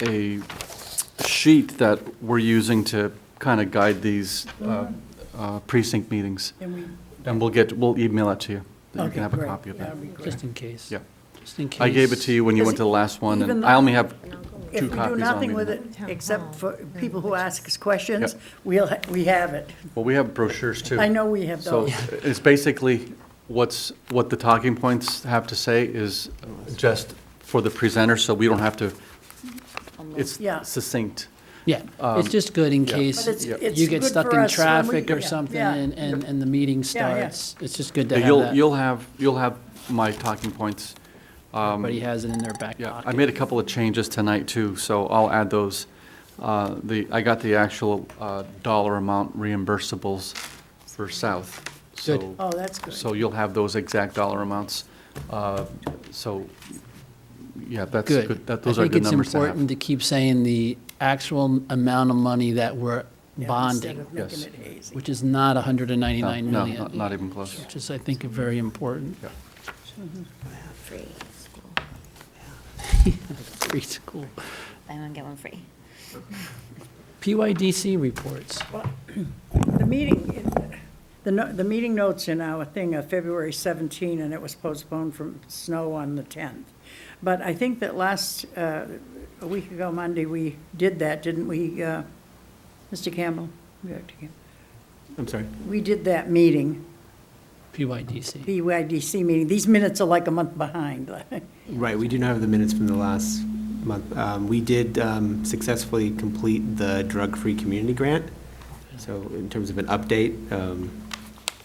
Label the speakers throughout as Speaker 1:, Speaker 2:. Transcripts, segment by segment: Speaker 1: a sheet that we're using to kind of guide these uh, uh, precinct meetings.
Speaker 2: And we,
Speaker 1: And we'll get, we'll email it to you. that You
Speaker 2: Okay,
Speaker 1: can have a
Speaker 2: great.
Speaker 1: copy of that.
Speaker 2: That'd be great.
Speaker 3: Just in case.
Speaker 1: Yeah.
Speaker 3: Just in case.
Speaker 1: I gave it to you when you
Speaker 2: Does
Speaker 1: went to the last one,
Speaker 2: even
Speaker 1: and
Speaker 2: though-
Speaker 1: I only have
Speaker 2: if
Speaker 1: two
Speaker 2: we do
Speaker 1: copies on me.
Speaker 2: nothing with it,
Speaker 4: Town hall,
Speaker 2: except for
Speaker 4: yeah,
Speaker 2: people who ask us questions,
Speaker 1: Yep.
Speaker 2: we'll, ha- we have it.
Speaker 1: Well, we have brochures too.
Speaker 2: I know we have
Speaker 1: So
Speaker 2: those.
Speaker 1: it's basically what's, what the talking points have to say is just for the presenter, so we don't have to, it's
Speaker 2: Yeah.
Speaker 1: succinct.
Speaker 3: Yeah, it's just good in
Speaker 1: um, yeah.
Speaker 3: case
Speaker 2: But it's- it's
Speaker 3: you get
Speaker 2: good
Speaker 3: stuck
Speaker 2: for
Speaker 3: in
Speaker 2: us when we-
Speaker 3: traffic or
Speaker 2: yeah,
Speaker 3: something
Speaker 2: yeah.
Speaker 3: and, and, and the meeting
Speaker 2: Yeah, yeah.
Speaker 3: starts. It's just good to have
Speaker 1: You'll,
Speaker 3: that.
Speaker 1: you'll have, you'll have my talking points.
Speaker 3: Everybody has it in their back
Speaker 1: um, Yeah,
Speaker 3: pocket.
Speaker 1: I made a couple of changes tonight too, so I'll add those. Uh, The, I got the actual uh, dollar amount reimbursables for South.
Speaker 3: Good.
Speaker 1: So
Speaker 2: Oh, that's
Speaker 1: So
Speaker 2: good.
Speaker 1: you'll have those exact dollar amounts. Uh, So, yeah, that's
Speaker 3: Good.
Speaker 1: good, that, those are good numbers to
Speaker 3: I think it's important
Speaker 1: have.
Speaker 3: to keep saying the actual amount of money that we're
Speaker 2: Yeah, instead
Speaker 3: bonding,
Speaker 2: of
Speaker 1: Yes.
Speaker 2: making it hazy.
Speaker 3: which is not 199
Speaker 1: No, no,
Speaker 3: million.
Speaker 1: not- not even close.
Speaker 3: Which is, I think, very important.
Speaker 1: Yeah.
Speaker 4: Free school.
Speaker 3: Free school.
Speaker 4: Buy one, get one free.
Speaker 3: PYDC reports.
Speaker 2: The meeting, the, no- the meeting notes in our thing are February 17, and it was postponed from snow on the 10th. But I think that last, uh, a week ago Monday, we did that, didn't we, uh, Mr. Campbell? Dr. Campbell?
Speaker 1: I'm sorry.
Speaker 2: We did that meeting,
Speaker 3: PYDC.
Speaker 2: BYDC meeting. These minutes are like a month behind.
Speaker 5: Right, we do not have the minutes from the last month. Um, We did um, successfully complete the drug-free community grant. So in terms of an update, um,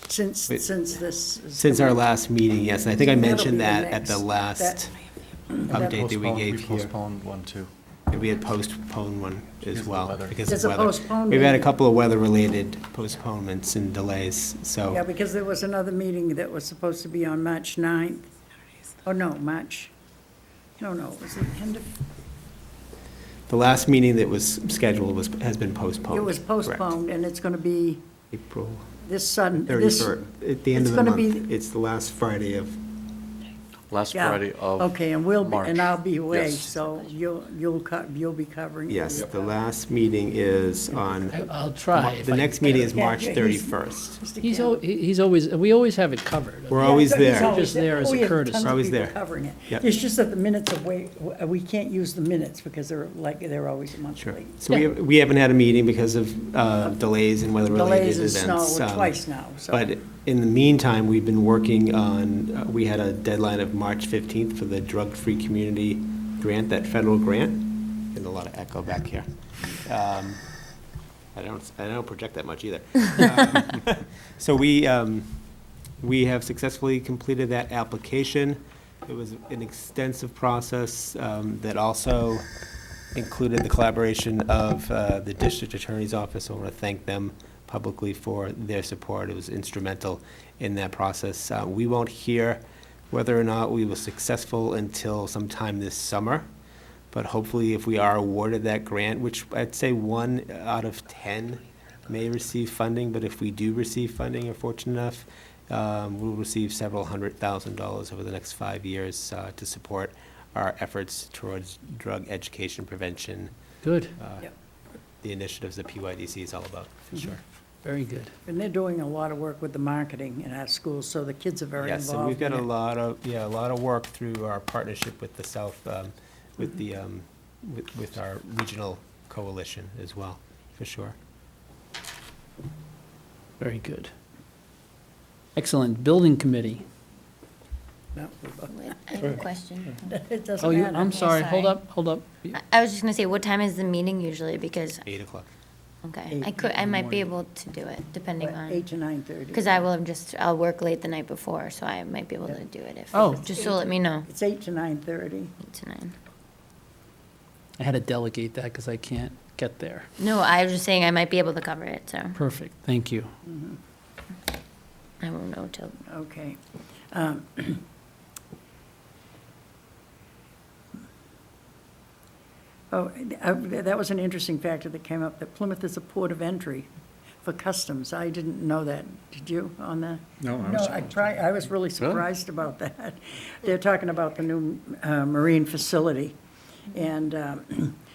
Speaker 2: Since,
Speaker 5: Wait.
Speaker 2: since this. is-
Speaker 5: since our last meeting, yes, and I think I
Speaker 2: That'll be
Speaker 5: mentioned
Speaker 2: the
Speaker 5: that at
Speaker 2: next-
Speaker 5: the
Speaker 2: that-
Speaker 5: last,
Speaker 2: that-
Speaker 5: Update that we gave
Speaker 1: We
Speaker 5: here.
Speaker 1: postponed one too.
Speaker 5: we had postponed one
Speaker 1: Because
Speaker 5: as
Speaker 1: of
Speaker 5: well.
Speaker 1: weather.
Speaker 5: because
Speaker 2: There's
Speaker 5: of
Speaker 2: a
Speaker 5: weather.
Speaker 2: postponed
Speaker 5: We've had a
Speaker 2: meeting.
Speaker 5: couple of weather-related postponements and delays, so.
Speaker 2: Yeah, because there was another meeting that was supposed to be on March 9th. Oh, no, March, no, no, it was the end of,
Speaker 5: The last meeting that was scheduled was, has been postponed.
Speaker 2: it was
Speaker 5: Oh, correct.
Speaker 2: postponed, and it's going to be
Speaker 5: April
Speaker 2: this sudden, this.
Speaker 5: 31st, at the end
Speaker 2: it's
Speaker 5: of the
Speaker 2: gonna be-
Speaker 5: month. It's the last Friday of
Speaker 1: Last
Speaker 2: yeah.
Speaker 1: Friday of
Speaker 2: Okay, and we'll, be-
Speaker 1: March.
Speaker 2: and I'll be away,
Speaker 1: Yes.
Speaker 2: so you'll, you'll, co- you'll be covering. it.
Speaker 5: Yes, the last meeting is
Speaker 3: I-
Speaker 5: on,
Speaker 3: I'll try. if
Speaker 5: the
Speaker 3: I-
Speaker 5: next meeting is
Speaker 2: Yeah,
Speaker 5: March
Speaker 2: yeah, he's-
Speaker 5: 31st.
Speaker 2: Mr.
Speaker 3: He's,
Speaker 2: Campbell.
Speaker 3: al- he- he's always, we always have it covered.
Speaker 5: We're always
Speaker 2: Yeah, he's
Speaker 5: there.
Speaker 2: always
Speaker 3: Just there as a
Speaker 2: We have
Speaker 3: courtesy.
Speaker 2: tons of
Speaker 5: Always
Speaker 2: people
Speaker 5: there.
Speaker 2: Covering it.
Speaker 5: Yep.
Speaker 2: It's just that the minutes are way, we can't use the minutes because they're like, they're always a month
Speaker 5: Sure.
Speaker 2: late.
Speaker 5: So we,
Speaker 3: Yeah.
Speaker 5: have- we haven't had a meeting because of uh, delays and weather-related
Speaker 2: Delays and
Speaker 5: events.
Speaker 2: snow
Speaker 5: um,
Speaker 2: twice now, so.
Speaker 5: But in the meantime, we've been working on, uh, we had a deadline of March 15th for the drug-free community grant, that federal grant. Getting a lot of echo back here. Um, I don't, I don't project that much either. Um, So we, um, we have successfully completed that application. It was an extensive process um, that also included the collaboration of uh, the district attorney's office. I want to thank them publicly for their support. It was instrumental in that process. Uh, We won't hear whether or not we were successful until sometime this summer. But hopefully, if we are awarded that grant, which I'd say one out of 10 may receive funding, but if we do receive funding, are fortunate enough, um, we'll receive several hundred thousand dollars over the next five years uh, to support our efforts towards drug education prevention,
Speaker 3: Good,
Speaker 5: uh,
Speaker 2: Yep. Mm-hmm.
Speaker 5: the initiatives that PYDC is all about, for sure.
Speaker 3: very good.
Speaker 2: And they're doing a lot of work with the marketing in our schools, so the kids are very
Speaker 5: Yes, and we've
Speaker 2: involved in
Speaker 5: got a
Speaker 2: it.
Speaker 5: lot of, yeah, a lot of work through our partnership with the South, um, with the,
Speaker 2: Mm-hmm.
Speaker 5: um, with- with our regional coalition as well, for sure.
Speaker 3: Very good. Excellent. Building committee.
Speaker 2: No,
Speaker 4: Wait, I have a question.
Speaker 2: It doesn't
Speaker 3: Oh, you,
Speaker 2: matter.
Speaker 3: I'm sorry. Hold
Speaker 4: sorry.
Speaker 3: up, hold up. You-
Speaker 4: I- I was just gonna say, what time is the meeting usually? Because,
Speaker 5: Eight o'clock.
Speaker 4: okay,
Speaker 2: Eight
Speaker 4: I
Speaker 2: in
Speaker 4: could, I might be
Speaker 3: morning.
Speaker 4: able to do it, depending
Speaker 2: Eight
Speaker 4: on,
Speaker 2: to nine thirty.
Speaker 4: because I will have just, I'll work late the night before, so I might be able to do it if,
Speaker 3: Oh.
Speaker 4: just so let me know.
Speaker 2: It's eight to nine thirty.
Speaker 4: Eight to nine.
Speaker 3: I had to delegate that because I can't get there.
Speaker 4: No, I was just saying I might be able to cover it, so
Speaker 3: Perfect, thank you.
Speaker 4: I won't know till,
Speaker 2: Okay. Um, Oh, I- that was an interesting factor that came up, that Plymouth is a port of entry for customs. I didn't know that. Did you on that?
Speaker 1: No, I
Speaker 2: No, I try, I was really surprised about that. They're talking about the new uh, marine facility. And um,